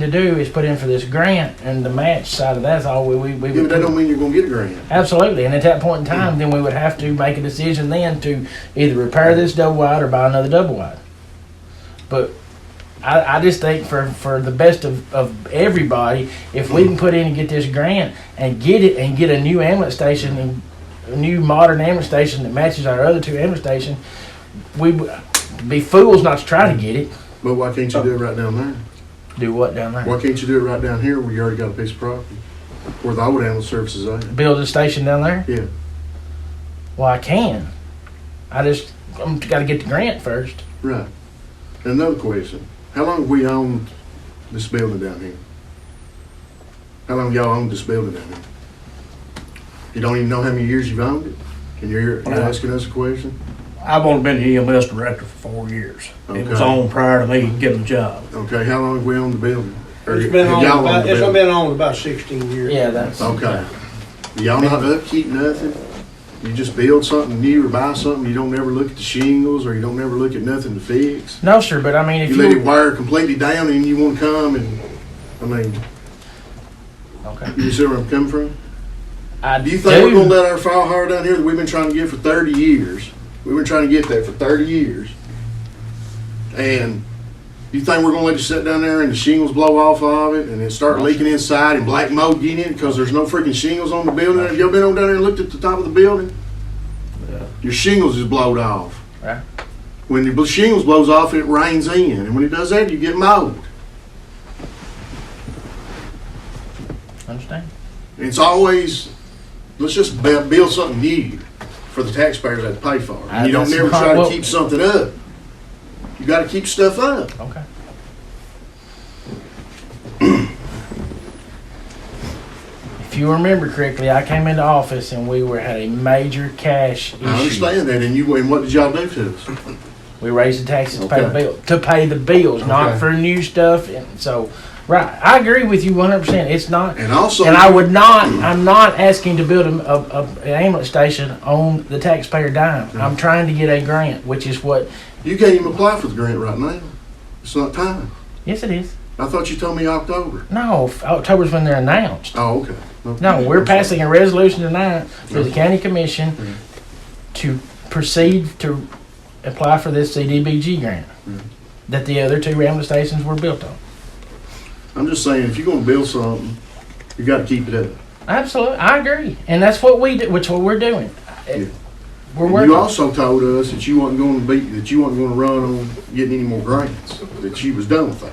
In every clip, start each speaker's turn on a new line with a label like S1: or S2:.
S1: to do is put in for this grant and the match side of that's all we we, we
S2: Yeah, but
S1: would
S2: that
S1: put-
S2: don't mean you're gonna get a grant.
S1: Absolutely, and at that point in time, then we would have to make a decision then to either repair this double wide or buy another double wide. But I, I just think for, for the best of, of everybody, if
S2: Mm.
S1: we can put in and get this grant and get it and get a new ambulance station and a new modern ambulance station that matches our other two ambulance station, we would be fools not to try to get it.
S2: But why can't you do it right down there?
S1: Do what down there?
S2: Why can't you do it right down here where you already got a piece of property? Where the old animal services at?
S1: Build a station down there?
S2: Yeah.
S1: Well, I can. I just I'm got to get the grant first.
S2: Right. Another question. How long have we owned this building down here? How long y'all owned this building down here? You don't even know how many years you've owned it? And you're, you're asking us a question?
S3: I've only been the EMS director for four years. It was
S2: Okay.
S3: on prior to me getting the job.
S2: Okay, how long have we owned the building? Or
S4: It's been
S2: have
S4: on,
S2: y'all owned
S4: about-
S2: the
S4: it's
S2: building?
S4: been on about sixteen years.
S1: Yeah, that's
S2: Okay. Y'all not upkeep nothing? You just build something new or buy something, you don't ever look at the shingles or you don't ever look at nothing to fix?
S1: No, sir. But I mean, if
S2: You
S1: you,
S2: let it wire completely down and you wanna come and, I mean,
S1: okay,
S2: you see where I'm coming from?
S1: I
S2: Do you think we're gonna let our file hire down here that we've been trying to get for thirty years? We've been trying to get that for thirty years. And you think we're gonna let it sit down there and the shingles blow off of it and then start leaking inside and black mold get in because there's no freaking shingles on the building? Have y'all been on down there and looked at the top of the building? Your shingles is blowed off.
S1: Right.
S2: When the bl- shingles blows off, it rains in, and when it does that, you get mold.
S1: understand.
S2: It's always, let's just bu- build something new for the taxpayers that pay for it.
S1: I-
S2: You don't
S1: that's
S2: never
S1: not
S2: try to
S1: what-
S2: keep something up. You gotta keep stuff up.
S1: Okay. if you remember correctly, I came into office and we were had a major cash issue.
S2: I understand that, and you, and what did y'all do to us?
S1: We raised the taxes to pay the
S2: Okay.
S1: bill to pay the bills, not
S2: Okay.
S1: for new stuff. And so, right, I agree with you one hundred percent. It's not.
S2: And also,
S1: And I would not, I'm not asking to build a, a, a, an ambulance station on the taxpayer dime.
S2: Mm-hmm.
S1: I'm trying to get a grant, which is what,
S2: you can't even apply for the grant right now. It's not time.
S1: yes, it is.
S2: I thought you told me October.
S1: No, f- October's when they're announced.
S2: Oh, okay. Okay.
S1: No, we're passing a resolution tonight for
S2: Mm-hmm.
S1: the county commission to proceed to apply for this CDBG grant
S2: Mm-hmm.
S1: that the other two ambulance stations were built on.
S2: I'm just saying, if you're gonna build something, you gotta keep it up.
S1: Absolutely, I agree, and that's what we do, which what we're doing. It- We're
S2: And You
S1: working,
S2: also told us that you wasn't gonna be, that you wasn't gonna run on getting any more grants, that you was done with that.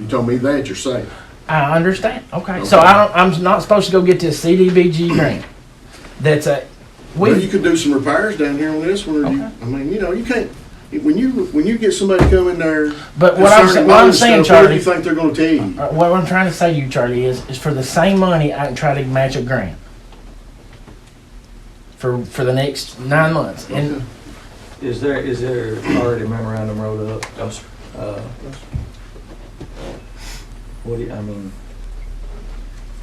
S2: You told me that yourself.
S1: I understand, okay, so I don't, I'm not supposed to go get this CDBG grant. That's a,
S2: Well, you
S1: we,
S2: could do some repairs down here on this one, or you, I mean, you know, you can't, when you, when you get somebody come in there.
S1: but what I'm, sa-
S2: concerning
S1: what I'm
S2: loans
S1: saying,
S2: and stuff, What do
S1: Charlie.
S2: you think they're gonna tell you?
S1: Uh, What I'm trying to say to you, Charlie, is, is for the same money, I can try to match a grant for for the next nine months. And
S5: Is there, is there already a memorandum wrote up? Uh, What do you, I mean,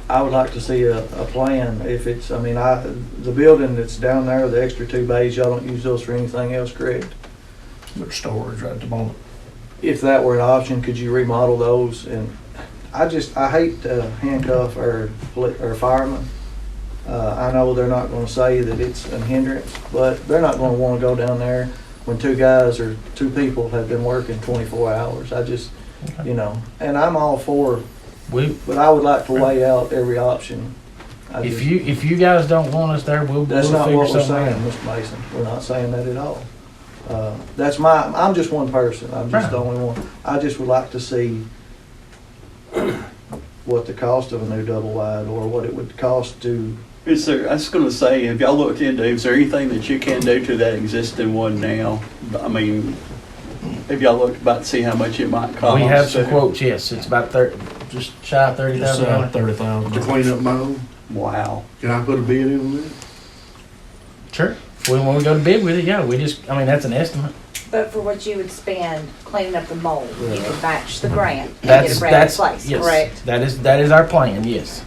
S5: I would like to see a, a plan if it's, I mean, I, the building that's down there, the extra two bays, y'all don't use those for anything else, correct?
S3: There's storage right at the moment.
S5: If that were an option, could you remodel those? And I just, I hate to handcuff our, poli- our firemen. Uh, I know they're not gonna say that it's a hindrance, but they're not gonna wanna go down there when two guys or two people have been working twenty-four hours. I just, you know, and I'm all for,
S1: we,
S5: but I would like to weigh out every option. I
S1: if
S5: just-
S1: you if you guys don't want us there, we'll,
S5: that's
S1: we'll
S5: not
S1: figure
S5: what we're
S1: something
S5: saying,
S1: out.
S5: Mr. Mason. We're not saying that at all. Uh, That's my, I'm just one person. I'm just the
S1: Right.
S5: only one. I just would like to see what the cost of a new double wide or what it would cost to,
S6: Is there, I was gonna say, have y'all looked into, is there anything that you can do to that existing one now? I mean, have y'all looked about to see how much it might cost?
S1: We have some quotes. Yes, it's about thirty, just shy of thirty
S3: It's
S1: thousand dollars.
S3: uh, thirty
S2: To
S3: thousand.
S2: clean up my own,
S6: Wow.
S2: can I put a bid in on that?
S1: Sure. When, when we go to bid with it, yeah, we just I mean that's an estimate.
S7: But for what you would spend cleaning up the mold, you could match the grant and get
S1: That's
S7: a brand new
S1: that's
S7: place,
S1: yes,
S7: correct?
S1: That is that is our plan. Yes.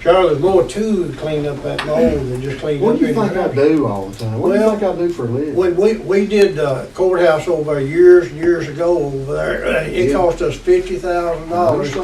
S4: Charlie, there's more to clean up that mold than just clean
S2: What
S4: up.
S2: do you
S4: any
S2: think I
S4: ground.
S2: do all the time? What do you
S4: Well,
S2: think I do for a living?
S4: When we, we did uh, courthouse over years and years ago over there, it
S2: Yeah.
S4: cost us fifty thousand dollars to